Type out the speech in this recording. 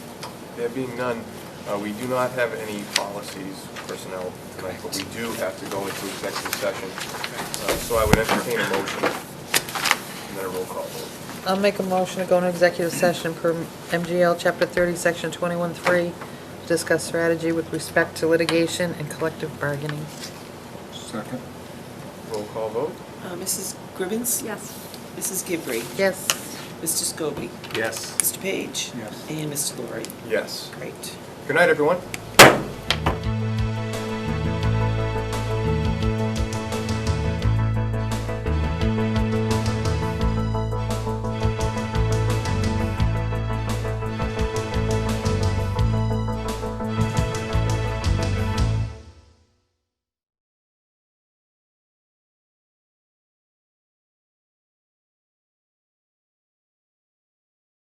There being none, uh, we do not have any policies personnel tonight, but we do have to go into executive session. Uh, So I would entertain a motion, and then a roll call vote. I'll make a motion to go into executive session per MGL Chapter 30, Section 21-3, to discuss strategy with respect to litigation and collective bargaining. Second. Roll call vote? Uh, Mrs. Gribbins? Yes. Mrs. Gibbrey? Yes. Mr. Scobie? Yes. Mr. Page? Yes. And Mr. Laurie? Yes. Great. Good night, everyone.